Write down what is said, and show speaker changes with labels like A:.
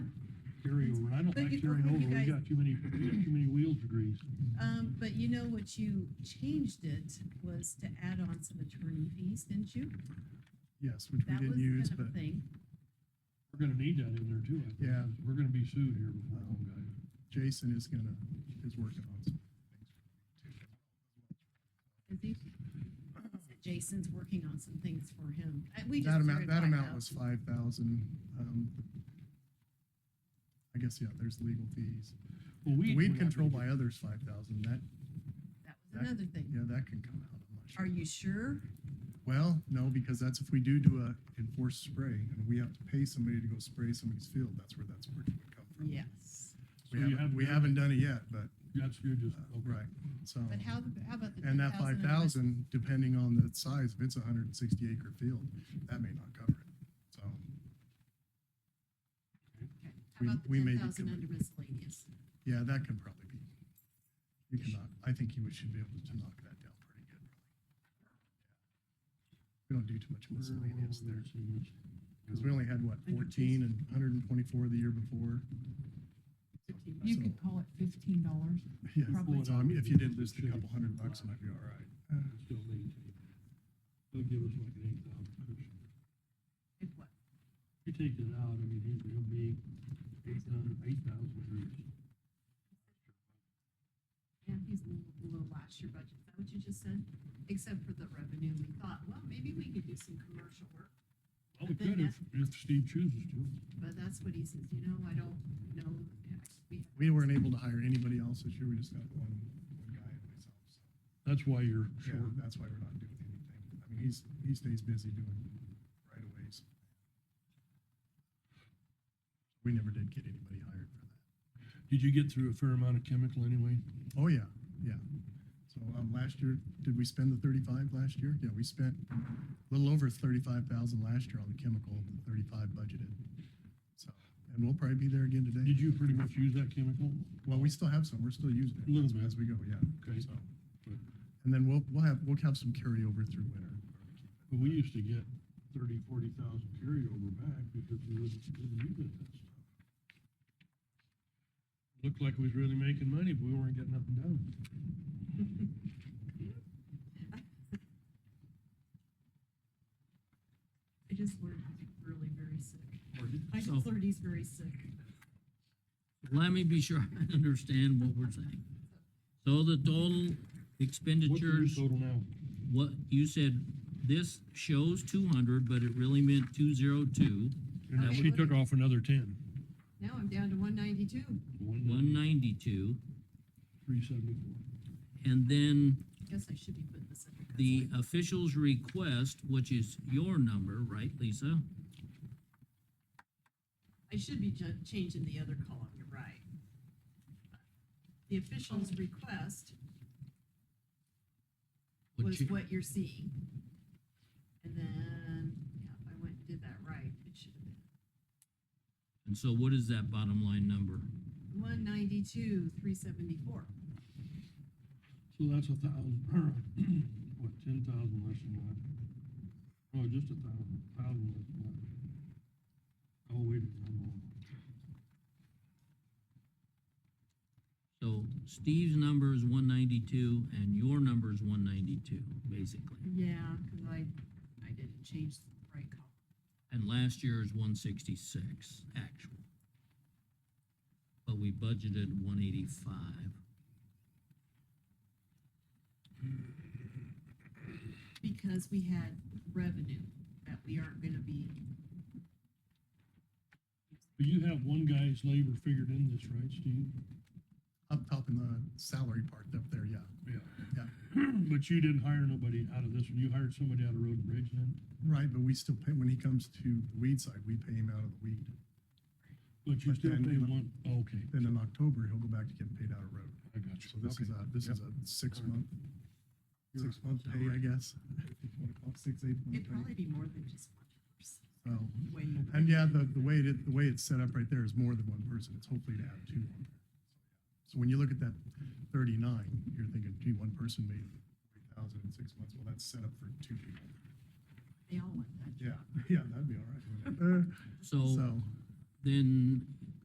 A: carry over. I don't
B: But
A: like
B: you-
A: carrying
B: you
A: over. We
B: guys-
A: got too many, we got too many wheels to grease.
B: Um, but you know what you changed it was to add on some attorney fees, didn't you?
C: Yes, which we
B: That was
C: didn't use,
B: kind
C: but
B: of a thing.
A: We're gonna need that in there too, I think.
C: Yeah. Oh,
A: We're gonna be sued here before long, guys.
C: Jason is gonna, is working on some things.
B: I think Oh. Jason's working on some things for him. I- We just
C: That
B: threw
C: amount,
B: it
C: that
B: back
C: amount
B: out.
C: was five thousand. um, I guess, yeah, there's legal fees.
A: Well, weed.
C: Weed
A: we're not
C: control by
A: gonna
C: others, five thousand. That,
B: That was another thing.
C: yeah, that can come out. I'm not sure.
B: Are you sure?
C: Well, no, because that's if we do do a enforced spray and we have to pay somebody to go spray somebody's field, that's where that's where it would come from.
B: Yes.
A: get-
C: We
A: So you
C: haven't,
A: haven't
C: we
A: done
C: haven't done it yet, but,
A: it. That's, you're just,
C: uh,
A: okay.
C: right, so.
B: But how, how about the?
C: And that five
B: 10,000 of it?
C: thousand, depending on the size, if it's a hundred and sixty acre field, that may not cover it, so.
B: Okay. How
C: we-
B: about the
C: we may
B: ten
C: be
B: thousand
C: covered.
B: under miscellaneous?
C: Yeah, that could probably be. You can knock, I think you should be able to knock that down pretty good. We don't do too much miscellaneous there, because we only had, what, fourteen and hundred and twenty-four the year before?
B: Fifteen
D: You
C: So-
D: could call it fifteen dollars.
C: Yeah,
D: Probably.
C: so I mean, if you did lose a couple hundred bucks, it might be all right.
A: Still maintain. They'll give us like an eight thousand cushion.
B: and what?
A: You take it out, I mean, he's gonna be eight thousand, eight thousand degrees.
B: And he's a little below last year budget, is that what you just said? Except for the revenue, we thought, well, maybe we could do some commercial work,
A: Well, we could if, if Steve chooses to.
B: but that's what he says, you know, I don't know. We have
C: We weren't able to hire anybody else this year, we just got one, one guy and myself, so.
A: That's why you're
C: Yeah,
A: short.
C: that's why we're not doing anything. I mean, he's, he stays busy doing right of ways. We never did get anybody hired for that.
A: Did you get through a fair amount of chemical anyway?
C: Oh, yeah, yeah. So, um, last year, did we spend the thirty-five last year? Yeah, we spent a little over thirty-five thousand last year on the chemical, the thirty-five budgeted. So, and we'll probably be there again today.
A: Did you pretty much use that chemical?
C: Well, we still have some, we're still using it.
A: Little
C: as-
A: bit.
C: As we go, yeah.
A: Okay.
C: So,
A: But-
C: And then we'll, we'll have, we'll have some carryover through winter.
A: But we used to get thirty, forty thousand carryover back because we wouldn't, wouldn't use it that stuff. Looked like we was really making money, but we weren't getting nothing done.
B: I just learned he's really very sick. I
E: So
B: just learned he's very sick.
E: let me be sure I understand what we're saying. So the total
A: What's your
E: expenditures,
A: total now?
E: what you said, this shows two hundred, but it really meant two zero two,
A: And
B: Okay,
A: she
B: what-
A: took off another ten.
B: Now I'm down to one ninety-two.
E: one ninety-two.
A: Three seventy-four.
E: And then
B: Guess I should be putting this under. consult.
E: the official's request, which is your number, right, Lisa?
B: I should be ju- changing the other column, you're right. The official's request
E: Which
B: was
E: you-
B: what you're seeing. And then, yeah, if I went and did that right, it should have been.
E: And so what is that bottom line number?
B: One ninety-two, three seventy-four.
A: So that's a thousand, or, what, ten thousand less than last? Oh, just a thousand, thousand less than last. Oh, wait, a minute, I'm wrong.
E: So Steve's number is one ninety-two and your number is one ninety-two, basically.
B: Yeah, cause I, I didn't change the right column.
E: And last year's one sixty-six actual. But we budgeted one eighty-five.
B: Because we had revenue that we aren't gonna be,
A: But you have one guy's labor figured in this, right, Steve?
C: Up top in the salary part up there, yeah.
A: Yeah.
C: Yeah.
A: But you didn't hire nobody out of this one, you hired somebody out of Road and Bridge then?
C: Right, but we still pay, when he comes to the weed side, we pay him out of the weed.
A: But you
C: But
A: still
C: then-
A: pay one, oh, okay,
C: Then in October, he'll go back to getting paid out of road.
A: I got you.
C: So this is a, this is a six month, six month pay, I guess. if you wanna call it Six, eight month
B: it'd
C: pay.
B: probably be more than just one person.
C: So,
B: Way more.
C: Um, And yeah, the, the way it, the way it's set up right there is more than one person. It's hopefully to have two. on there. So when you look at that thirty-nine, you're thinking, gee, one person made three thousand in six months. Well, that's set up for two people.
B: They all want that.
C: Yeah, yeah, that'd be all right. wouldn't it? Uh,
E: So
C: So,
E: then